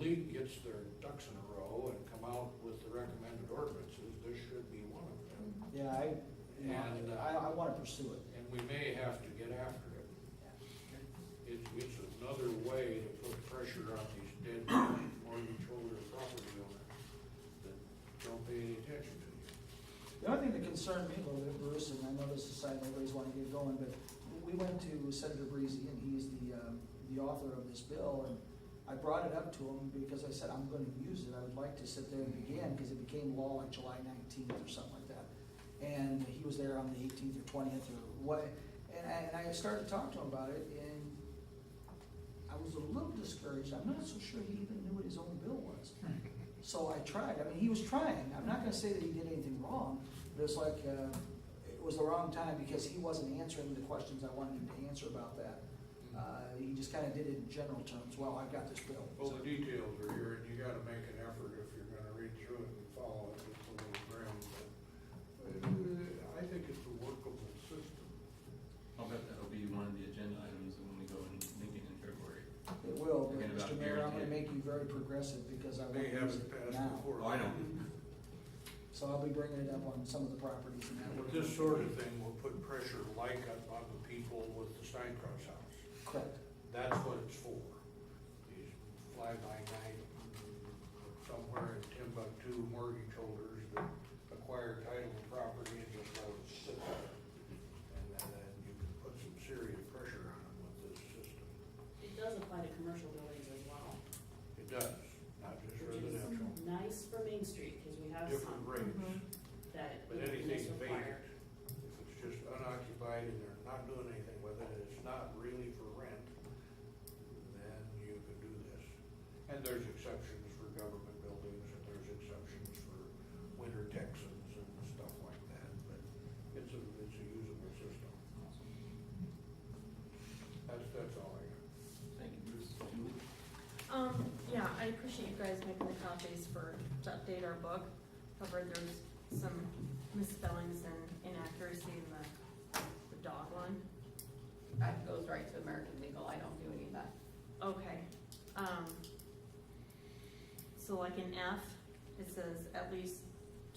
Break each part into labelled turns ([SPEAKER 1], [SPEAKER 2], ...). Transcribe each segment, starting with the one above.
[SPEAKER 1] league gets their ducks in a row and come out with the recommended ordinances, this should be one of them.
[SPEAKER 2] Yeah, I, you know,
[SPEAKER 1] And, uh,
[SPEAKER 2] I, I wanna pursue it.
[SPEAKER 1] And we may have to get after it. It's, it's another way to put pressure on these dead mortgage holder property owners that don't pay any attention to
[SPEAKER 2] The only thing that concerned me a little bit, Bruce, and I know this is a side, nobody's wanting to get going, but we went to Senator Breezy, and he's the, um, the author of this bill, and I brought it up to him because I said, I'm gonna use it, I would like to sit there and begin, because it became law like July nineteenth or something like that. And he was there on the eighteenth or twentieth or what, and I, and I started talking to him about it, and I was a little discouraged, I'm not so sure he even knew what his own bill was. So I tried, I mean, he was trying, I'm not gonna say that he did anything wrong, but it's like, uh, it was the wrong time because he wasn't answering the questions I wanted him to answer about that. Uh, he just kinda did it in general terms, well, I've got this bill.
[SPEAKER 1] it. Well, the details are here, and you gotta make an effort if you're gonna read through it and follow it, it's a little grim, but uh, I think it's a workable system.
[SPEAKER 3] I'll bet that'll be one of the agenda items when we go in Lincoln in February.
[SPEAKER 2] It will, but
[SPEAKER 3] Thinking about
[SPEAKER 2] Mr. Mayor, I'm gonna
[SPEAKER 3] guaranteeing.
[SPEAKER 2] make you very progressive because I want to
[SPEAKER 1] They
[SPEAKER 2] use
[SPEAKER 1] haven't
[SPEAKER 2] it
[SPEAKER 1] passed
[SPEAKER 2] now.
[SPEAKER 1] before.
[SPEAKER 3] Oh, I know.
[SPEAKER 2] So I'll be bringing it up on some of the properties and that.
[SPEAKER 1] But this sort of thing will put pressure like up on the people with the Steinkross house.
[SPEAKER 2] Correct,
[SPEAKER 1] That's what it's for. These fly-by-night, somewhere in Timbuktu mortgage holders that acquire title and property and just let it sit there. And then then you can put some serious pressure on them with this system.
[SPEAKER 4] It does apply to commercial buildings as well,
[SPEAKER 1] It does, not just
[SPEAKER 4] which is
[SPEAKER 1] residential,
[SPEAKER 4] nice for Main Street, cause we have
[SPEAKER 1] different
[SPEAKER 4] some
[SPEAKER 1] rates.
[SPEAKER 4] that.
[SPEAKER 1] But
[SPEAKER 4] you know,
[SPEAKER 1] anything
[SPEAKER 4] just require-
[SPEAKER 1] vacant, if it's just unoccupied and they're not doing anything with it, and it's not really for rent, then you can do this. And there's exceptions for government buildings, and there's exceptions for winter Texans and stuff like that, but it's a, it's a usable system. That's, that's all I got.
[SPEAKER 3] Thank you, Bruce. Julie?
[SPEAKER 5] Um, yeah, I appreciate you guys making the copies for, to update our book. However, there's some misspellings and inaccuracy in the, the dog one.
[SPEAKER 6] That goes right to American Legal, I don't do any of that.
[SPEAKER 5] Okay, um, so like in F, it says at least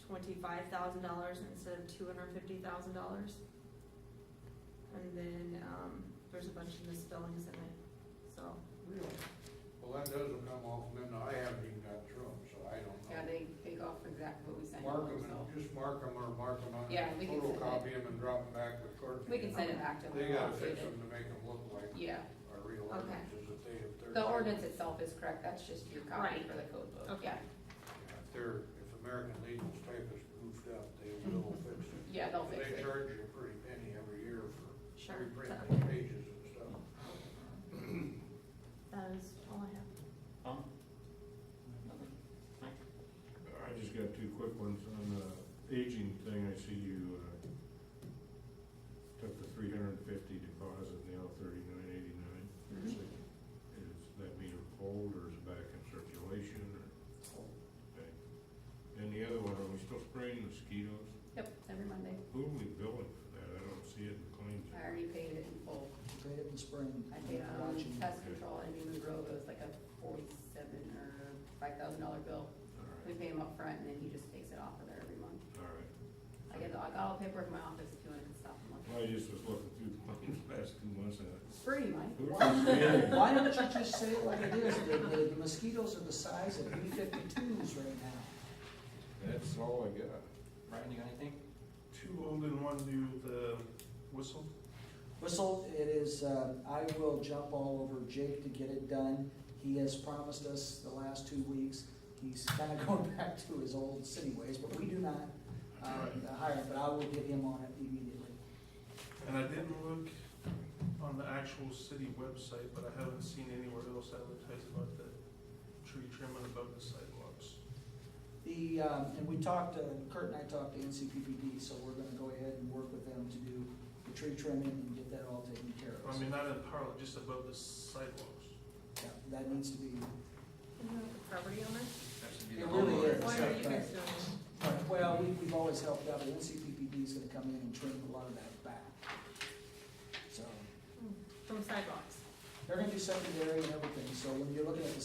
[SPEAKER 5] twenty-five thousand dollars instead of two hundred and fifty thousand dollars. And then, um, there's a bunch of misspellings in it, so,
[SPEAKER 1] Really? Well, that doesn't come off, and then I haven't even got through them, so I don't know.
[SPEAKER 6] Yeah, they, they go for exactly what we sent
[SPEAKER 1] Mark
[SPEAKER 6] them,
[SPEAKER 1] them,
[SPEAKER 6] so.
[SPEAKER 1] and just mark them or mark them on,
[SPEAKER 6] Yeah, we can send it.
[SPEAKER 1] photocopy them and drop them back with Courtney.
[SPEAKER 6] We can send it back to them.
[SPEAKER 1] They gotta
[SPEAKER 6] I'll
[SPEAKER 1] fix
[SPEAKER 6] update
[SPEAKER 1] them
[SPEAKER 6] it.
[SPEAKER 1] to make them look like
[SPEAKER 6] Yeah,
[SPEAKER 1] our real
[SPEAKER 5] Okay.
[SPEAKER 1] ordinances that they have. they're-
[SPEAKER 6] the ordinance itself is correct, that's just your copy
[SPEAKER 5] Right.
[SPEAKER 6] for the code book,
[SPEAKER 5] Okay.
[SPEAKER 6] yeah.
[SPEAKER 1] If they're, if American Legal's typist goofed up, they will fix it.
[SPEAKER 6] Yeah, they'll fix
[SPEAKER 1] They
[SPEAKER 6] it.
[SPEAKER 1] charge you a pretty penny every year for
[SPEAKER 5] Sure.
[SPEAKER 1] reprinting pages and stuff.
[SPEAKER 5] that is all I have.
[SPEAKER 3] Tom?
[SPEAKER 7] I just got two quick ones. On the aging thing, I see you, uh, took the three hundred and fifty deposit now thirty-nine eighty-nine. Is that meter cold or is it back in circulation or? Okay. Then the other one, are we still spraying mosquitoes?
[SPEAKER 6] Yep, every Monday.
[SPEAKER 7] Who are we billing for that? I don't see it in claims.
[SPEAKER 6] I already paid it in full.
[SPEAKER 2] we paid it in spring.
[SPEAKER 6] I um, paid on
[SPEAKER 2] Watching.
[SPEAKER 6] pest control and Newman Grove, it was like a forty-seven or five thousand dollar bill.
[SPEAKER 7] All
[SPEAKER 6] We
[SPEAKER 7] right,
[SPEAKER 6] pay him up front, and then he just takes it off of there every month.
[SPEAKER 7] all right.
[SPEAKER 6] I get, the- I got all the paperwork in my office if you wanna stop and look.
[SPEAKER 7] Well, I just was looking through the claims last two months and. I-
[SPEAKER 6] Free, Mike.
[SPEAKER 7] Who are we spraying?
[SPEAKER 2] Why don't you just say it like it is, the, the- the mosquitoes are the size of B fifty-twos right now.
[SPEAKER 7] That's all I got.
[SPEAKER 3] Brian, you got anything?
[SPEAKER 8] Two old and one new, the whistle?
[SPEAKER 2] Whistle, it is, uh, I will jump all over Jake to get it done. He has promised us the last two weeks, he's kinda going back to his old city ways, but we do not, uh, hire him, but I will get him on it immediately.
[SPEAKER 8] And I didn't look on the actual city website, but I haven't seen anywhere else advertised about the tree trimming above the sidewalks.
[SPEAKER 2] The, um, and we talked, uh, Kurt and I talked to NCPPD, so we're gonna go ahead and work with them to do the tree trimming and get that all taken care of.
[SPEAKER 8] I mean, not in parallel, just above the sidewalks.
[SPEAKER 2] Yeah, That needs to be,
[SPEAKER 5] Isn't that the property owner?
[SPEAKER 3] That should be
[SPEAKER 2] It
[SPEAKER 3] the
[SPEAKER 2] really
[SPEAKER 3] homeowner.
[SPEAKER 2] is.
[SPEAKER 5] What are you guys doing?
[SPEAKER 2] well, we, we've always helped out, but NCPPD is gonna come in and trim a lot of that back. So,
[SPEAKER 5] From sidewalks. Hmm,
[SPEAKER 2] they're gonna do secondary and everything, so when you're looking at the